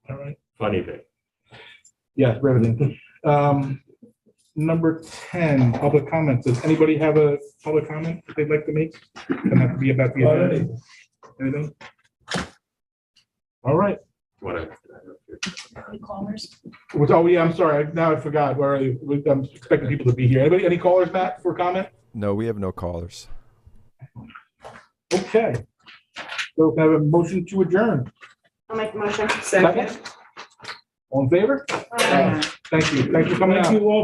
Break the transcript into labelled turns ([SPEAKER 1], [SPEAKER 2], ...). [SPEAKER 1] Honeybee.
[SPEAKER 2] Yeah, revenue. Um, number ten, public comments. Does anybody have a public comment that they'd like to make? Doesn't have to be about the agenda. Anything? All right,
[SPEAKER 1] What I-
[SPEAKER 3] Commerce.
[SPEAKER 2] What's- oh yeah, I'm sorry. Now I forgot. Where are you? I'm expecting people to be here. Anybody, any callers back for comment?
[SPEAKER 4] No, we have no callers.
[SPEAKER 2] Okay. So can I have a motion to adjourn.
[SPEAKER 3] I'll make the motion.
[SPEAKER 2] Second. All in favor?
[SPEAKER 3] Aye.
[SPEAKER 2] Thank you. Thanks for coming out.